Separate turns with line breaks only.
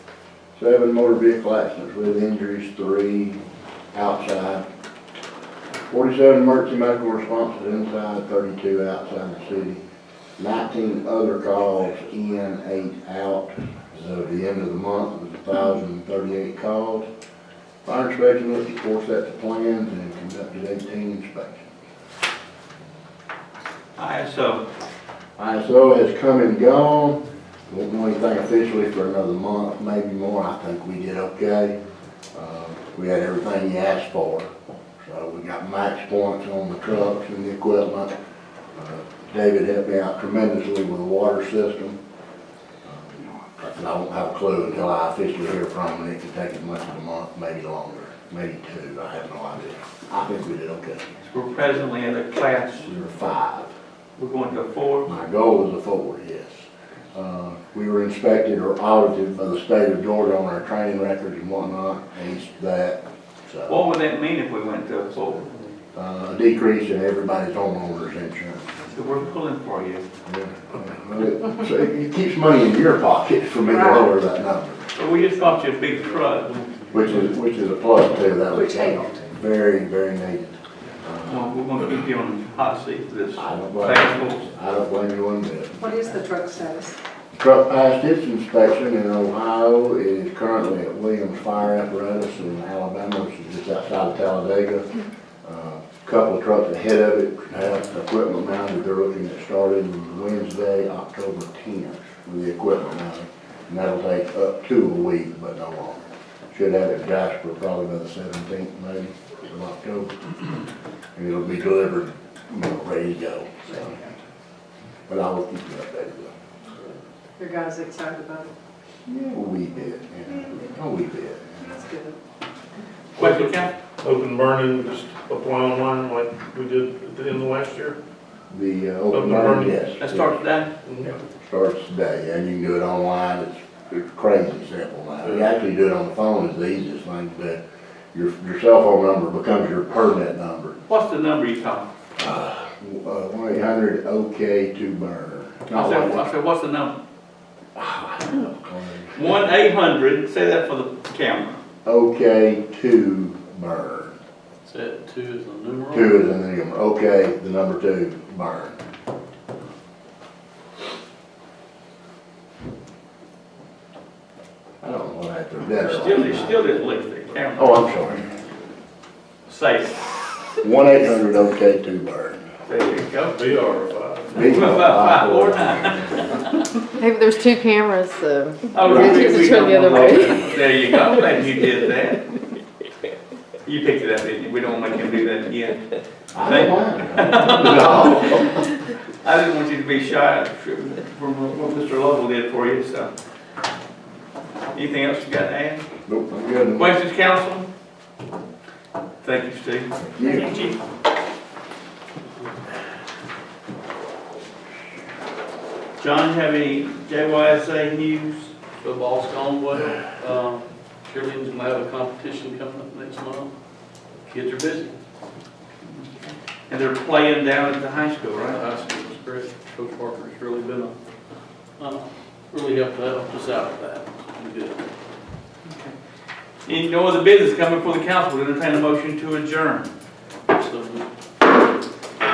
Seven motor vehicle accidents with injuries, three outside. Forty-seven emergency medical responses inside, thirty-two outside the city. Nineteen other calls in, eight out. As of the end of the month, it was thousand and thirty-eight calls. Fire inspection looked, of course, at the plans and conducted eighteen inspections.
ISO,
ISO has come and gone, won't know anything officially for another month, maybe more, I think we did okay. Uh, We had everything you asked for, so we got max points on the trucks and the equipment. Uh, David helped me out tremendously with the water system. Uh, And I won't have a clue until I officially hear from him, it could take as much as a month, maybe longer, maybe two, I have no idea. I think we did okay,
we're presently in a class,
we were five.
we're going to four.
My goal was a four, yes. Uh, We were inspected or audited by the state of Georgia on our training records and whatnot, and that, so.
What would that mean if we went to a four?
uh, A decrease in everybody's homeowner's insurance.
So we're pulling for you.
So it keeps money in your pocket for me to lower that number,
But we just got you a big truck.
which is, which is a plus too, that was
Which helped.
very, very needed. Uh,
Well, We're gonna keep you on the hot seat for this
I don't
task
blame,
force.
I don't blame you one bit.
What is the truck status?
Truck passed its inspection in Ohio, it is currently at Williams Fire Apparatus in Alabama, which is just outside of Talladega. Uh, Couple of trucks ahead of it have equipment mounted, they're looking at starting Wednesday, October tenth, with the equipment mounted. And that'll take up to a week, but no longer. Should have it Jasper probably by the seventeenth, maybe, of October. And it'll be delivered, you know, ready to go, so. But I will keep you updated though.
Your guys excited about it?
Yeah, we did, yeah, oh, we did.
That's good.
Question, Cap?
open burning, just apply online like we did at the end of last year.
The uh,
Open
open burn,
burning.
yes.
Let's start today.
Starts today, and you can do it online, it's, it's crazy simple now. You actually do it on the phone is the easiest thing, but your, your cell phone number becomes your permit number.
What's the number you call?
One eight hundred OK to burn.
I said, I said, what's the number? One eight hundred, say that for the camera.
OK to burn.
Set two is the numeral.
Two is in the number, OK, the number two, burn. I don't know what I did there.
Still, it still didn't lift the camera.
Oh, I'm sorry.
Say, it.
One eight hundred OK two burn.
there you go.
VR
Beat my
Five, four,
five.
nine.
Maybe there's two cameras, so.
Oh,
Right.
we- we- we
Just turn the
don't
other
want-
way.
There you go, glad you did that. You picked it up, didn't you? We don't want to do that again.
I don't mind. No.
I didn't want you to be shy from what Mr. Lovell did for you, so. Anything else you got to add?
Nope, I'm good.
Questions, council? Thank you, Steve.
You.
Chief. John, have any JYSA news?
Football's gone well. Um, Cheerleading's gonna have a competition coming up next month. Kids are busy.
And they're playing down at the high school, right?
High school is great. Coach Parker's really been a, uh, really helped out, helped us out with that. It's been good.
Any no other business coming before the council, we're entertain a motion to adjourn.